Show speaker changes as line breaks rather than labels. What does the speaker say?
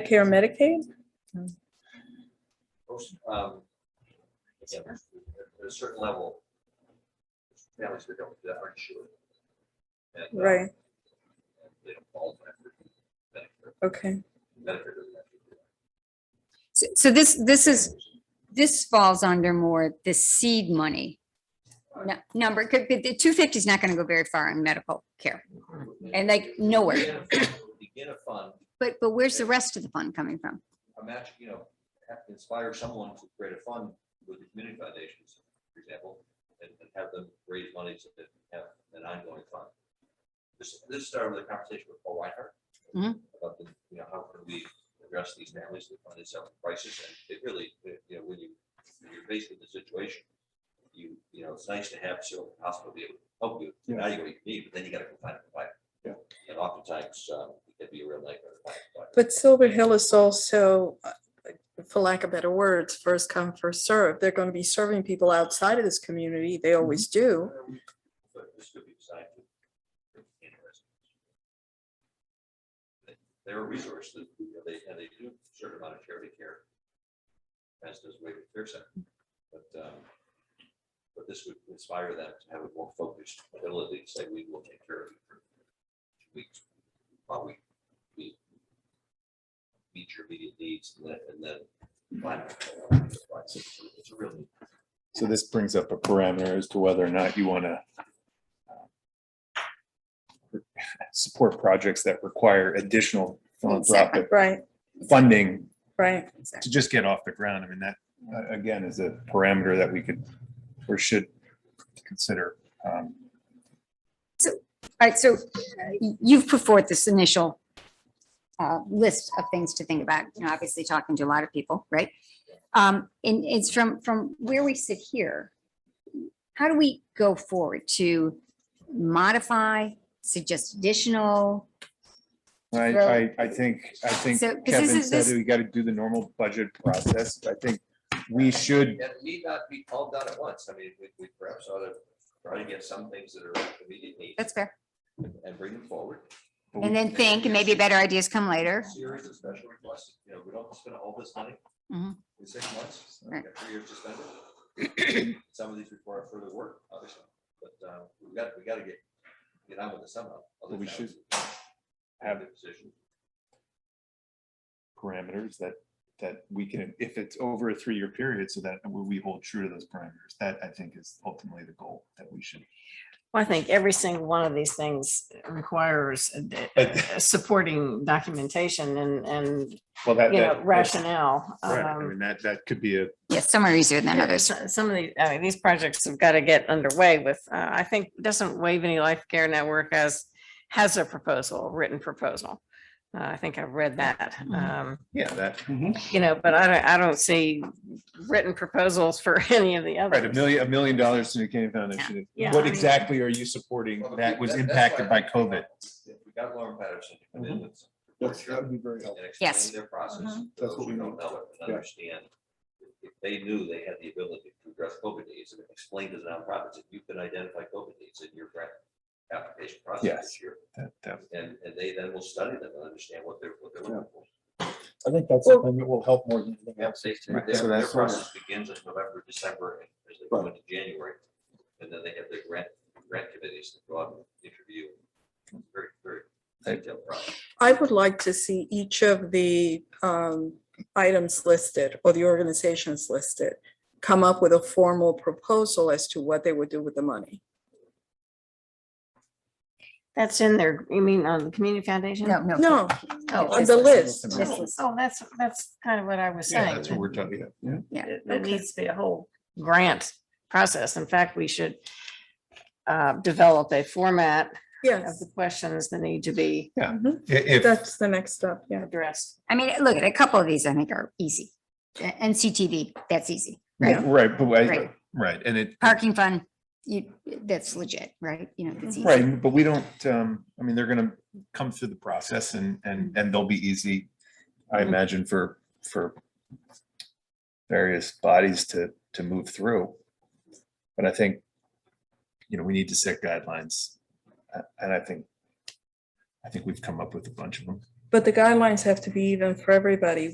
Medicare, Medicaid?
most, um, again, at a certain level, families that don't do that aren't sure. And, uh,
Right,
They don't qualify for Medicare,
okay.
Medicare doesn't have to do that.
So- So this, this is, this falls under more the seed money nu- number. Could be, the two fifty is not gonna go very far in medical care and like nowhere.
Begin a- Begin a fund,
But, but where's the rest of the fund coming from?
a match, you know, have to inspire someone to create a fund with the community foundations, for example, and, and have them raise money so that we have an ongoing fund. This, this started with a conversation with Paul Reinhardt.
Mhm.
About the, you know, how can we address these families that find themselves in crisis, and it really, you know, when you, when you're faced with the situation, you, you know, it's nice to have Civil Hospital be able to help you
Yeah.
evaluate what you need, but then you gotta go find a provider.
Yeah.
And oftentimes, um, it can be a real nightmare. to find a provider.
But Silver Hill is also, uh, for lack of better words, first come, first serve. They're going to be serving people outside of this community. They always do.
But this could be designed to. interesting. They- They're a resource that, you know, they, and they do a certain amount of charity care. As does Waywood Care Center. But, um, but this would inspire them to have a more focused ability to say, we will take care of you for two weeks. While we, we meet your immediate needs and then, and then. find out. It's a real need.
So this brings up a parameter as to whether or not you want to uh, support projects that require additional philanthropic
Right,
funding
right.
to just get off the ground. I mean, that, uh, again, is a parameter that we could or should consider. Um,
All right, so uh, y- you've put forth this initial uh, list of things to think about, you know, obviously talking to a lot of people, right? Um, and it's from, from where we sit here, how do we go forward to modify, suggest additional?
I, I,
Right.
I think, I think
So, 'cause this
Kevin
is-
said
this-
that we got to do the normal budget process. I think we should
And it need not be all done at once. I mean, we, we perhaps ought to try to get some things that are immediately
That's fair.
and bring them forward.
And then think, and maybe better ideas come later.
Series of special requests, you know, we don't spend all this money in
Mhm.
six months, we
Right.
got three years to spend it. Some of these require further work, obviously, but, uh, we got, we gotta get, get on with it somehow. other
Well, we
towns
have-
a position.
parameters that, that we can, if it's over a three-year period, so that we we hold true to those parameters. That I think is ultimately the goal that we should.
Well, I think every single one of these things requires a- a-
But-
a supporting documentation and, and,
Well, that,
you know,
that-
rationale.
Right, I
Um,
mean, that, that could be a,
Yes, some are easier than
yeah,
others.
so- Some of the, I mean, these projects have got to get underway with, uh, I think, doesn't Wave Any Life Care Network has, has a proposal, a written proposal. Uh, I think I've read that. Um,
yeah, that,
you know, but I don't, I don't see written proposals for any of the
right, a
others.
million, a million dollars to the Kennedy Foundation.
Yeah.
What
Yeah.
exactly are you supporting
Well,
that was
that's why
impacted by
I think
COVID?
If we got Lauren Patterson to come in with some
Mm-hmm. That's,
Sure.
that'd be very
and
helpful.
Yes.
explain their process.
Mhm.
to
That's
Those
what
who
we need.
don't know it and
Yeah.
understand, if- if they knew they had the ability to address COVID needs and explain to the nonprofits, if you could identify COVID needs in your grant application process
Yes.
this year,
That- that-
and, and they then will study them and understand what they're, what they're looking for.
I think that's something that will help more than anything else.
Their,
Right, so
their- their
that's-
process begins in November, December, and as they go
Right.
into January, and then they have their grant, grant committees that go out and interview. It's Very, very detailed process.
I would like to see each of the um, items listed or the organizations listed come up with a formal proposal as to what they would do with the money.
That's in there, you mean on the Community Foundation?
No, no.
No,
Oh,
on
this
the
list.
list.
This list.
Oh, that's, that's kind of what I was
Yeah,
saying.
that's what we're talking about. Yeah.
it- There needs to be a whole grant process. In fact, we should uh, develop a format of
Yes, Mm-hmm.
the questions that need to be
If, if-
that's the next step, yeah.
addressed.
I mean, look, a couple of these I think are easy. Uh, NCTV, that's easy. Right.
right, but, I-
Right.
right, and it,
Parking fund, you, that's legit, right? You know, that's easy.
Right, but we don't, um, I mean, they're gonna come through the process and, and, and they'll be easy, I
Mhm.
imagine, for, for various bodies to, to move through. But I think, you know, we need to set guidelines, a- and I think, I think we've come up with a bunch of them.
But the guidelines have to be even for everybody,